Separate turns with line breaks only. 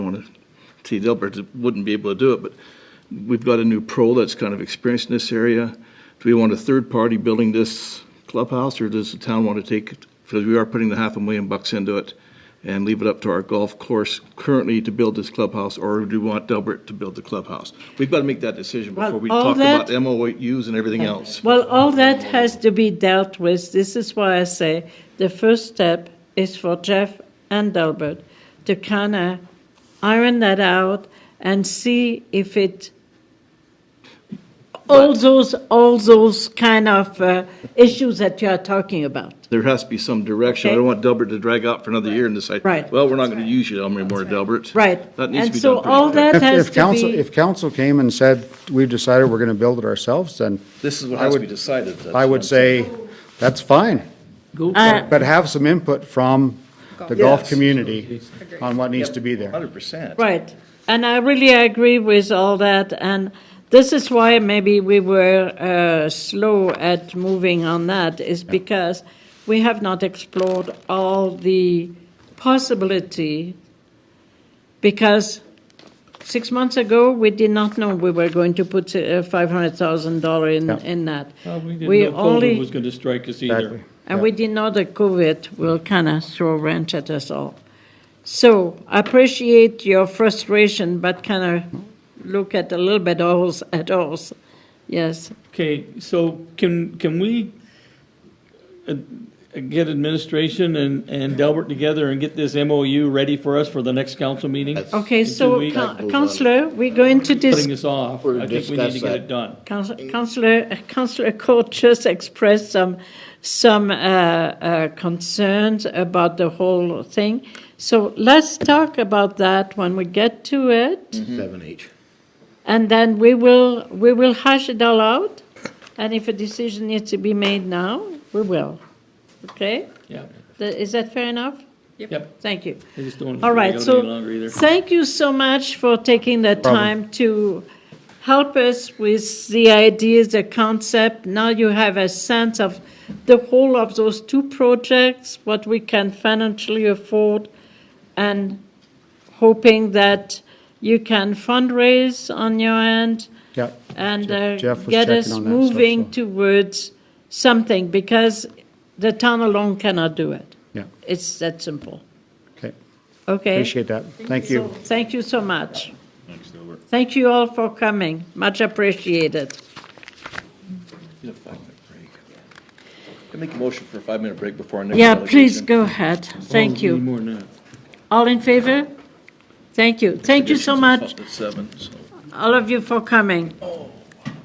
want to see Dilbert wouldn't be able to do it, but we've got a new pro that's kind of experienced in this area. Do we want a third party building this clubhouse, or does the town want to take, it? because we are putting the half a million bucks into it, and leave it up to our golf course currently to build this clubhouse, or do we want Dilbert to build the clubhouse? We've got to make that decision
Well,
before we
all
talk about
that-
MOUs and everything else.
Well, all that has to be dealt with. This is why I say the first step is for Jeff and Delbert to kind of iron that out and see if it all those all those kind of uh, issues that you are talking about.
There has to be some direction. I
Okay.
don't want Delbert to drag out for another year and decide,
Right.
well, we're not going to use you anymore, Delbert.
Right.
That needs to
And
be
so
done pretty
all
quick.
that-
If,
has
if
to
council,
be-
if council came and said, we've decided we're gonna build it ourselves, then
This is what
I
has to
would-
be decided. that's
I
what I'm
would say, that's fine.
Uh,
But have some input from the
Yes.
golf community on what needs to be there.
Hundred percent.
Right. And I really agree with all that. And this is why maybe we were uh, slow at moving on that, is because we have not explored all the possibility. Because six months ago, we did not know we were going to put uh, $500,000 in,
Yeah.
in that.
Well, Uh, we didn't
We
know COVID
only-
was going to strike us
Exactly.
either.
and we didn't know that COVID will kind of throw a wrench at us all. So I appreciate your frustration, but kind of look at a little bit ours at ours. Yes.
Okay, so can, can we uh, get administration and, and Delbert together and get this MOU ready for us for the next council meeting?
Okay, so
we-
coun- Councillor, we're going to
Putting
dis-
this off, I think we need to get it done.
Council- Councillor, Councillor Court just expressed some, some uh, uh, concerns about the whole thing. So let's talk about that when we get to it.
Seven H.
And then we will, we will hash it all out, and if a decision needs to be made now, we will. Okay?
Yeah,
Th- Is that fair enough?
yep.
Thank you.
I just don't
All
want
right,
to go
so,
any longer either.
thank you so much for taking the time to help us with the ideas, the concept. Now you have a sense of the whole of those two projects, what we can financially afford, and hoping that you can fundraise on your end
Yeah.
and uh,
Jeff was
get
checking
us
on that stuff,
moving
so-
towards something, because the town alone cannot do it.
Yeah,
It's that simple,
okay,
okay?
appreciate that, thank
So,
you.
Thank you so much. Thanks, Gilbert. Thank you all for coming, much appreciated.
Need a five-minute break. Can I make a motion for a five-minute break before our next
Yeah, please
delegation?
go ahead,
Oh,
thank
we need
you.
more than that.
All in favor? Thank you, thank you so
Delegation's
much,
at Seven, so.
all of you for coming.